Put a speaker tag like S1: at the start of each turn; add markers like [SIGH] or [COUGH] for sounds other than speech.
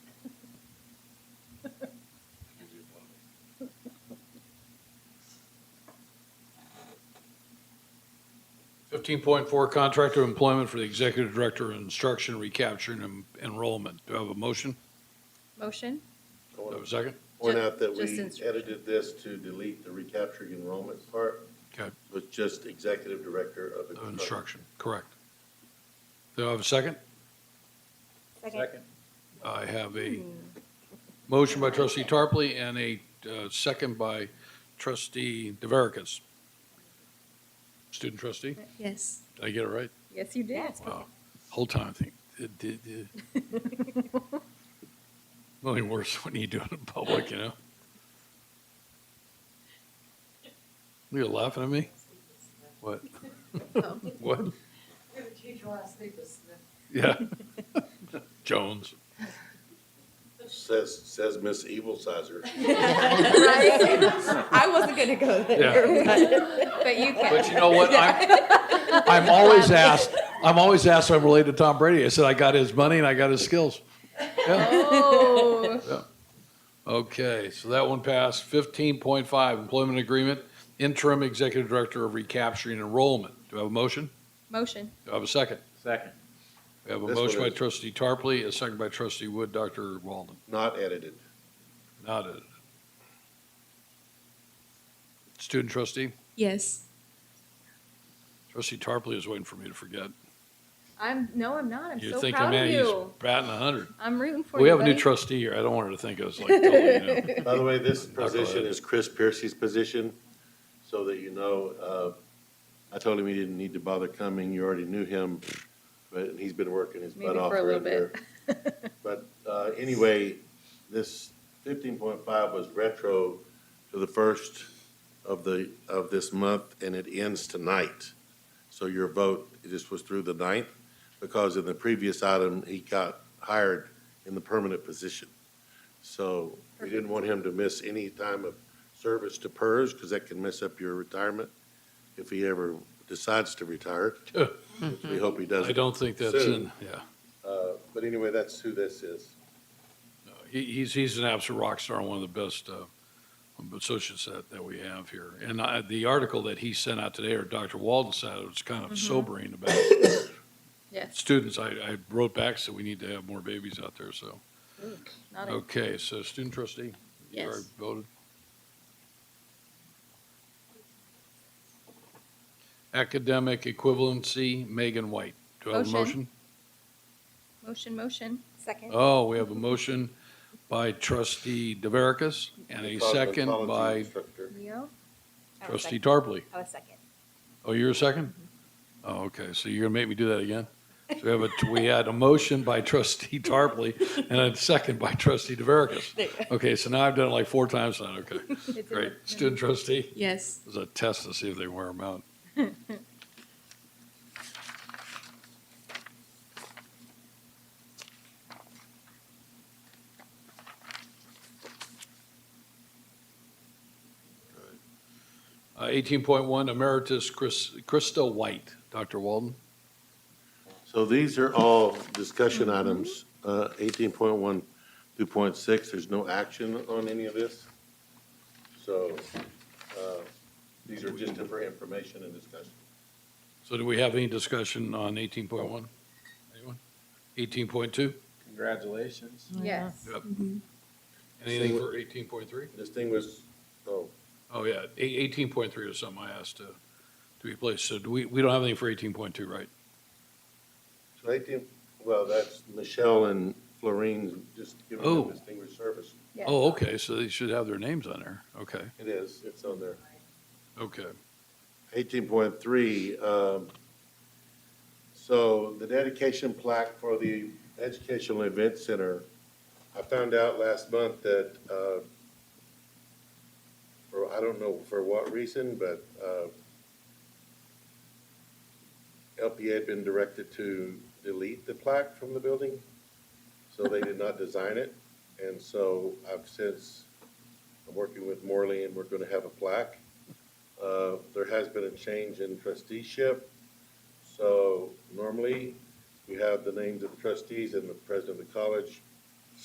S1: Fifteen point four, contract of employment for the executive director of instruction, recapture, and en- enrollment. Do I have a motion?
S2: Motion?
S1: Do I have a second?
S3: Point out that
S2: Just-
S3: we
S2: just instruction.
S3: edited this to delete the recapturing enrollment part.
S1: Okay.
S3: With just executive director of
S1: Of
S3: instruction.
S1: instruction, correct. Do I have a second?
S4: Second.
S1: I have a motion by trustee Tarpley and a uh, second by trustee DeVerekas. Student trustee,
S2: Yes.
S1: did I get it right?
S2: Yes, you did.
S1: Wow, whole time I think, it did, it. Only worse when you do it in public, you know? You're laughing at me? What?
S2: Oh.
S1: What?
S5: You're the teacher when I sleep with Smith.
S1: Yeah. Jones.
S3: Says, says Miss Evil Sizer.
S4: I wasn't gonna go
S1: Yeah.
S2: But you
S1: But
S2: can.
S1: you know what? I'm, I'm always asked, I'm always asked if I'm related to Tom Brady. I said, I got his money and I got his skills. Yeah.
S2: Oh.
S1: Okay, so that one passed. Fifteen point five, employment agreement, interim executive director of recapturing enrollment. Do I have a motion?
S2: Motion.
S1: Do I have a second?
S4: Second.
S1: We have a
S3: This one
S1: motion by
S3: is.
S1: trustee Tarpley, a second by trustee Wood, Dr. Walden.
S3: Not edited.
S1: Not it. Student trustee,
S2: Yes.
S1: trustee Tarpley is waiting for me to forget.
S2: I'm, no, I'm not. I'm
S1: You're
S2: so
S1: thinking,
S2: proud of
S1: man, he's
S2: you.
S1: batting a hundred.
S2: I'm rooting for you.
S1: We have a new
S2: buddy.
S1: trustee here. I don't want her to think I was like, totally, you know.
S3: By the way,
S2: [LAUGHS]
S3: this
S1: gonna
S3: position
S1: edit.
S3: is Chris Piercy's position, so that you know, uh, I told him he didn't need to bother coming. You already knew him, but he's been working his
S2: Maybe
S3: butt off
S2: for a little
S3: around there.
S2: bit. [LAUGHS]
S3: But uh, anyway, this fifteen point five was retro to the first of the, of this month, and it ends tonight. So your vote, this was through the ninth, because in the previous item, he got hired in the permanent position. So we didn't want him to miss any time of service to PERS, because that can mess up your retirement if he ever decides
S1: [LAUGHS]
S3: to retire. which We hope he [LAUGHS] doesn't.
S1: I don't think that's
S3: Soon.
S1: in, yeah.
S3: Uh, But anyway, that's who this is.
S1: He, he's, he's an absolute rock star and one of the best, uh, associates that, that we have here. And I, the article that he sent out today, or Dr. Walden sent out, was
S2: Mm-hmm.
S1: kind of sobering about
S2: Yes,
S1: students. I, I wrote back, so we need to have more babies out there, so.
S2: not a,
S1: Okay, so student trustee, you already
S2: Oh. yes.
S1: voted. Academic equivalency, Megan White. Do I have a
S2: Motion.
S1: motion?
S2: Motion, motion.
S4: Second.
S1: Oh, we have a motion by trustee DeVerekas and a second by
S2: Leo?
S1: trustee Tarpley.
S4: I was Oh, second. Mm-hmm.
S1: Oh, you're a second? Oh, okay, so you're gonna make me do that again? So we have a, we had a motion by trustee Tarpley and a second by trustee
S4: [LAUGHS]
S1: DeVerekas.
S4: There.
S1: Okay, so now I've done it like four times now, okay.
S2: It's in the-
S1: Great. Student trustee?
S2: Yes.
S1: It was a test to see if they wear them out. Uh, Eighteen point one, Emeritus Chris, Krista White, Dr. Walden.
S3: So these are all discussion items, uh, 18.1 through .6. There's no action on any of this. So uh, these are just for information and discussion.
S1: So do we have any discussion on eighteen point one? Anyone? Eighteen point two?
S4: Congratulations.
S2: Yes.
S1: Anything for eighteen point three?
S3: This thing was, oh,
S1: Oh, yeah, eighteen point three or something I asked to, to be placed. So do we, we don't have anything for eighteen point two, right?
S3: so 18, well, that's Michelle and Florine's just giving
S1: Oh.
S3: them distinguished service.
S2: Yes.
S1: Oh, okay, so they should have their names on there. Okay,
S3: It is, it's on there.
S1: okay.
S3: 18.3, um, so the dedication plaque for the Educational Event Center, I found out last month that, uh, for, I don't know for what reason, but uh, LPA had been directed to delete the plaque from the building, so they did not design it. And so I've since, I'm working with Morley, and we're going to have a plaque. Uh, There has been a change in trusteeship. So normally, we have the names of the trustees and the president of the college.